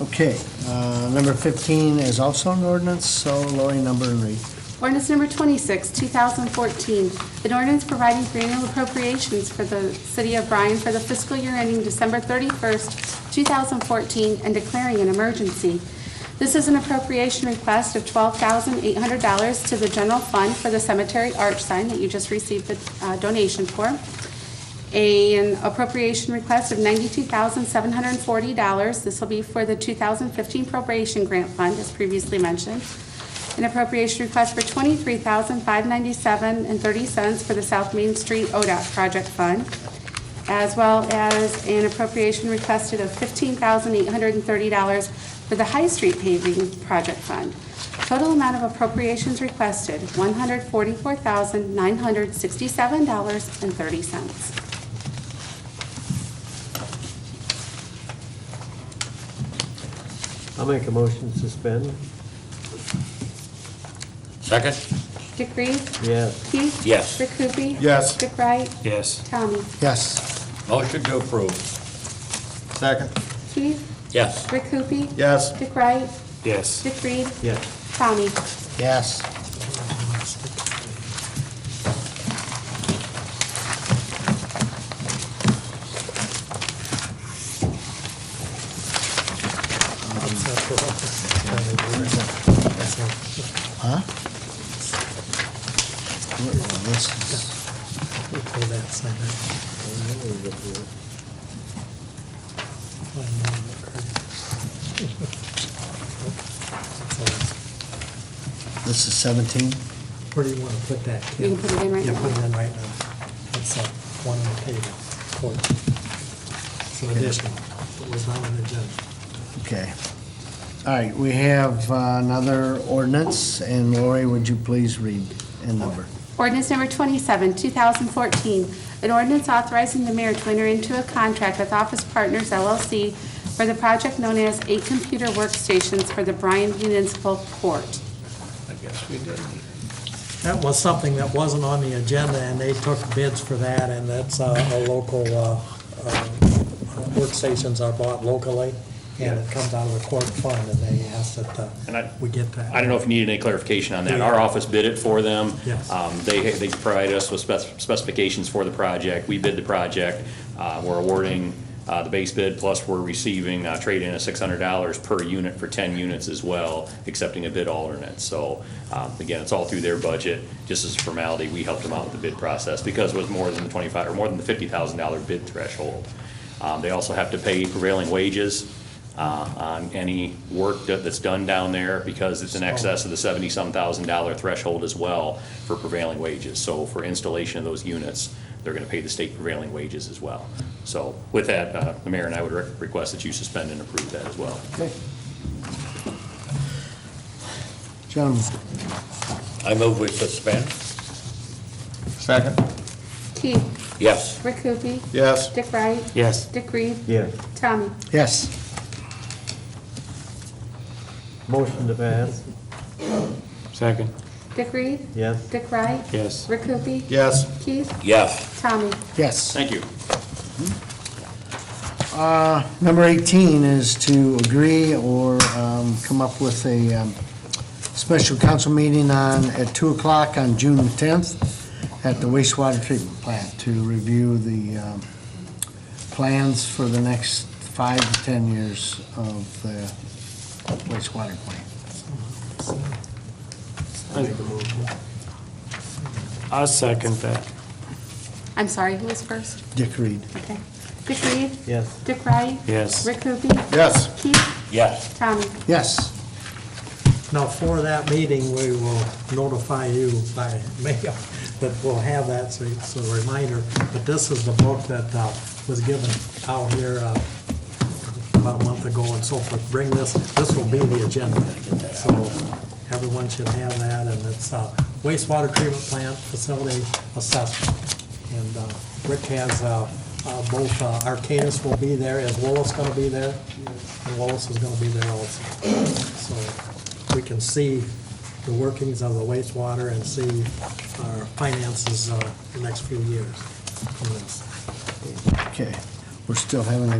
Okay, uh, number 15 is also an ordinance, so Lori, number and read. Ordinance number 26, 2014, an ordinance providing for annual appropriations for the city of Bryan for the fiscal year ending December 31st, 2014, and declaring an emergency. This is an appropriation request of $12,800 to the general fund for the cemetery arch sign that you just received the uh, donation for an appropriation request of $92,740. This will be for the 2015 appropriation grant fund, as previously mentioned. An appropriation request for $23,597.30 for the South Main Street ODOT project fund, as well as an appropriation requested of $15,830 for the High Street paving project fund. Total amount of appropriations requested, $144,967.30. I'll make a motion to suspend. Second? Dick Reed? Yes. Keith? Yes. Rick Hoopie? Yes. Dick Wright? Yes. Tommy? Yes, Motion to approve. Second. Keith? Yes. Rick Hoopie? Yes. Dick Wright? Yes. Dick Reed? Yes. Tommy? yes. Huh? This is- This is 17? Where do you want to put that? You can put it in right You now. put it in right now. That's uh, one on the table, court. It's an additional, it was not on the agenda. Okay. All right, we have uh, another ordinance, and Lori, would you please read and number? Ordinance number 27, 2014, an ordinance authorizing the mayor to enter into a contract with Office Partners LLC for the project known as Eight Computer Workstations for the Bryan Municipal Court. I guess we did. That was something that wasn't on the agenda, and they took bids for that, and that's uh, a local, uh, uh, workstations are bought locally, and it comes out of the court fund, and they asked that uh, And I- we get that. I don't know if you needed any clarification on that. Our office bid it for them. Yes. Um, They, they provided us with spec- specifications for the project. We bid the project. Uh, We're awarding uh, the base bid, plus we're receiving uh, trade-in of $600 per unit for 10 units as well, accepting a bid alternate. So um, again, it's all through their budget. Just as a formality, we helped them out with the bid process because it was more than the 25, or more than the $50,000 bid threshold. Um, They also have to pay prevailing wages uh, on any work that- that's done down there because it's in excess of the seventy-some thousand dollar threshold as well for prevailing wages. So for installation of those units, they're going to pay the state prevailing wages as well. So with that, uh, the mayor and I would re- request that you suspend and approve that as well. Gentlemen, I move we suspend. Second. Keith? Yes. Rick Hoopie? Yes. Dick Wright? Yes. Dick Reed? Yes. Tommy? yes. Motion to pass. Second. Dick Reed? Yes. Dick Wright? Yes. Rick Hoopie? Yes. Keith? Yes. Tommy? Yes. Thank you. Uh, Number 18 is to agree or um, come up with a um, special council meeting on, at 2 o'clock on June 10th at the wastewater treatment plant to review the um, plans for the next five to 10 years of the wastewater plant. I second that. I'm sorry, who was first? Dick Reed. Okay. Dick Reed? Yes. Dick Wright? Yes. Rick Hoopie? Yes. Keith? Yes. Tommy? Yes. Now, for that meeting, we will notify you by mail that we'll have that, so it's a reminder. But this is the book that uh, was given out here uh, about a month ago and so forth. Bring this, this will be the agenda. So everyone should have that, and it's uh, wastewater treatment plant facility assessment. And uh, Rick has, uh, uh, both uh, Arcanus will be there, is Willis going to be there? And Willis is going to be there also. So we can see the workings of the wastewater and see our finances uh, the next few years from this. Okay. We're still having a